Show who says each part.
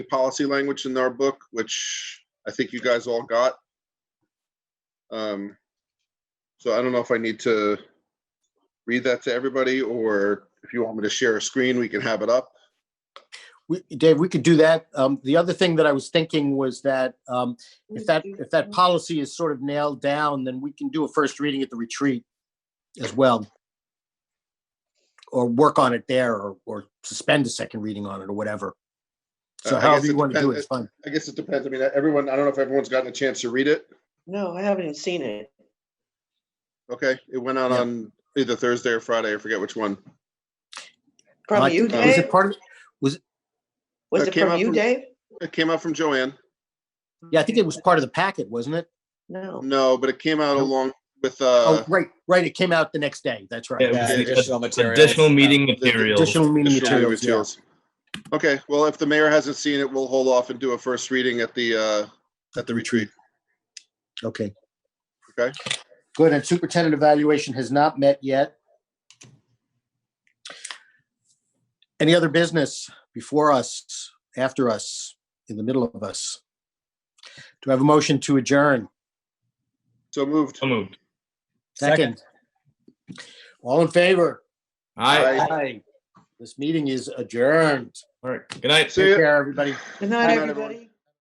Speaker 1: the policy language in our book, which I think you guys all got. Um, So I don't know if I need to read that to everybody, or if you want me to share a screen, we can have it up.
Speaker 2: We, Dave, we could do that. Um, the other thing that I was thinking was that, um, if that, if that policy is sort of nailed down, then we can do a first reading at the retreat as well. Or work on it there or, or suspend a second reading on it or whatever. So
Speaker 1: Uh, I
Speaker 2: however
Speaker 1: guess
Speaker 2: you
Speaker 1: it
Speaker 2: want to do it,
Speaker 1: depends-
Speaker 2: it's fine.
Speaker 1: I guess it depends. I mean, everyone, I don't know if everyone's gotten a chance to read it.
Speaker 3: No, I haven't seen it.
Speaker 1: Okay, it went out
Speaker 2: Yeah.
Speaker 1: on either Thursday or Friday, I forget which one.
Speaker 2: Like,
Speaker 3: From
Speaker 2: uh,
Speaker 3: you,
Speaker 2: Was
Speaker 1: Dave?
Speaker 2: it
Speaker 3: Dave?
Speaker 2: part of,
Speaker 3: Was
Speaker 1: That
Speaker 3: it
Speaker 1: came
Speaker 3: from
Speaker 1: out
Speaker 3: you,
Speaker 1: from-
Speaker 3: Dave?
Speaker 1: It came out from Joanne.
Speaker 2: yeah, I think it was part of the packet, wasn't it?
Speaker 3: No.
Speaker 1: No, but it came out
Speaker 2: No.
Speaker 1: along with,
Speaker 2: Oh,
Speaker 1: uh,
Speaker 2: right, right. It came out the next day. That's right.
Speaker 4: Yeah,
Speaker 5: Yeah,
Speaker 4: the additional materials.
Speaker 5: Additional meeting materials.
Speaker 2: Additional meeting
Speaker 1: additional
Speaker 2: materials. yeah.
Speaker 1: materials. Okay, well, if the mayor hasn't seen it, we'll hold off and do a first reading at the, uh, at the retreat.
Speaker 2: Okay.
Speaker 1: Okay.
Speaker 2: Good, and superintendent evaluation has not met yet. Any other business before us, after us, in the middle of us? Do I have a motion to adjourn?
Speaker 1: So moved.
Speaker 5: So moved.
Speaker 4: Second.
Speaker 2: Second. All in favor?
Speaker 5: All right.
Speaker 1: Aye.
Speaker 2: Aye. This meeting is adjourned.
Speaker 5: All right. Good night.
Speaker 1: See
Speaker 2: Take
Speaker 1: ya.
Speaker 2: care, everybody.
Speaker 3: Good
Speaker 1: Good
Speaker 3: night,
Speaker 1: night, everyone.
Speaker 3: everybody.